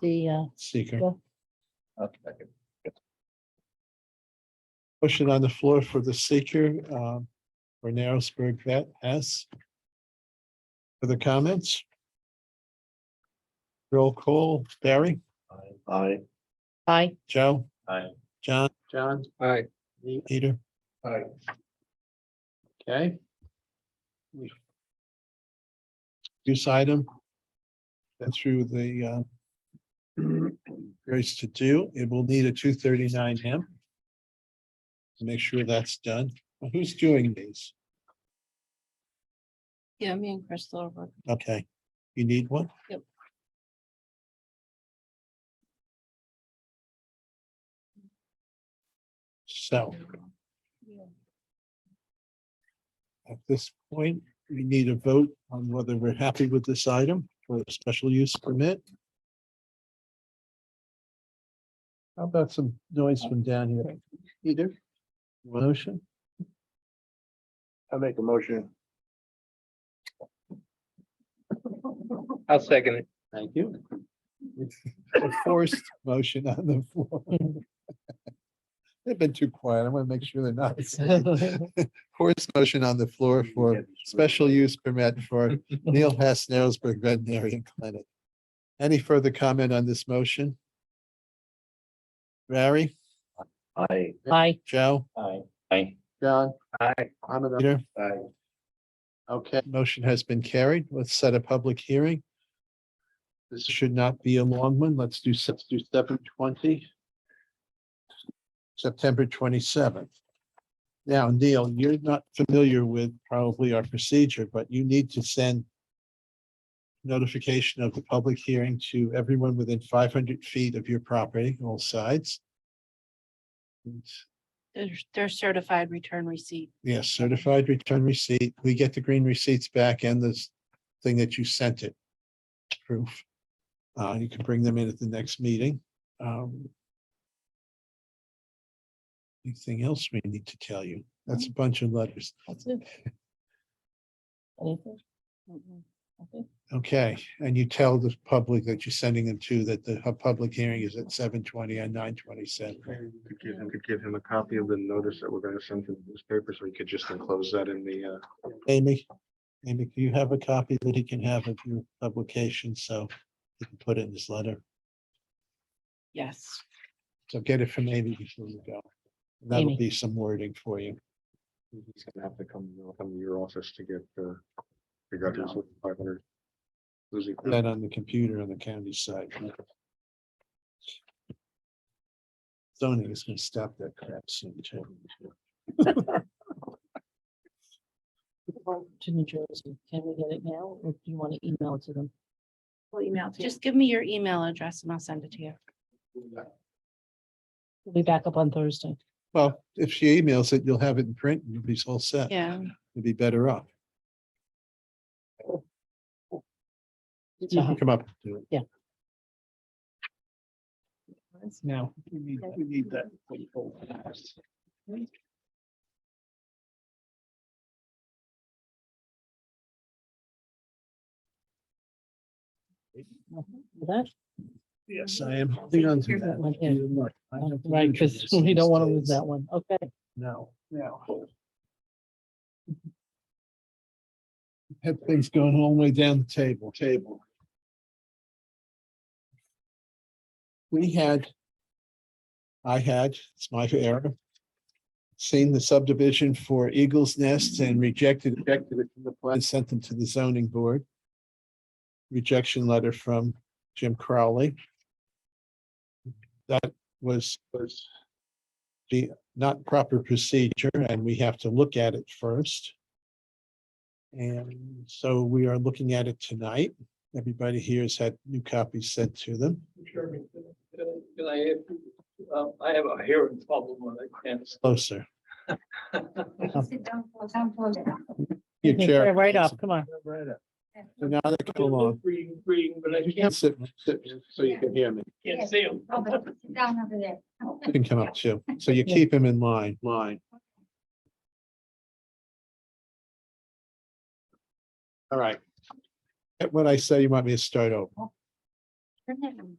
the, uh, seeker. Yeah. I'll second. Motion on the floor for the seeker, um, for Narrowsburg Vet S. Further comments? Roll call, Barry, Aye. aye, Joe, Aye. John, John? Aye. Peter. Aye. Okay, use item. And through the uh. Grace to do, it will need a two thirty-nine M. to Make sure that's done. Well, Who's doing these? Yeah, me and Crystal. were- Okay, you need one? Yep. So at this point, we need a vote on whether we're happy with this item for a special use permit. How about some noise from down here? Either motion? I make a motion. I'll second it. Thank you. a forced motion on the floor. They've been too quiet. I want to make sure they're not. asleep. Forced motion on the floor for special use permit for Neil Hess Narrowsburg Veterinarian Clinic. Any further comment on this motion? Barry, Aye. aye, Joe, Aye. Aye. John? Aye. I'm an, Peter, Aye. okay, motion has been carried. Let's set a public hearing. This should not be a long one. Let's do, se- let's do seven twenty. September twenty-seventh. Now, Neil, you're not familiar with probably our procedure, but you need to send notification of the public hearing to everyone within five hundred feet of your property, all sides. And They're, they're certified return receipt. Yes, certified return receipt. We get the green receipts back and this thing that you sent it. Proof. Uh, you can bring them in at the next meeting. Um. Anything else we need to tell you? That's a bunch of letters. that's it. Anything? Mhm. Okay, and you tell the public that you're sending them to that the hu- public hearing is at seven twenty and nine twenty-seven. Maybe we could give, we could give him a copy of the notice that we're gonna send to the newspaper, so he could just enclose that in the, uh, Amy, Amy, do you have a copy that he can have of your publication? So he can put it in his letter. Yes. So get it from Amy before you go. That'll Amy. be some wording for you. he's gonna have to come, he'll come to your office to get, uh, figure out his five hundred. Losing. Put That on the computer on the county side. Zoning is gonna stop that crap soon too. To New Jersey, can we get it now, or do you want to email it to them? Well, email. Just give me your email address and I'll send it to you. We'll be back up on Thursday. Well, if she emails it, you'll have it in print and you'll be all set. Yeah. You'll be better off. You So- can Come up. and do it. now, we need, we need that. Mm-hmm. That, Yes, I am holding on to that. Right, You're right. I have to right, read from because this we don't these want to lose days. that one, okay. No, no. Have things going all the way down the table, table. We had. I had, it's my error. Seen the subdivision for Eagles Nest and rejected, rejected it from the plan, sent them to the zoning board. Rejection letter from Jim Crowley. That was, was. The not proper procedure and we have to look at it first. And so we are looking at it tonight. Everybody here has had new copies sent to them. Can I, have- um, I have a hearing problem and I can't. Closer. Your Okay, chair. Right off, come on, So Now they come along. Reading, reading, but I You can't, can't sit, sit, so you can hear me. can't see them. Oh, but sit down over there. You can come up too. So you Yeah. keep him in line, line. All right. At What I say, you want me to start over? Turn it on.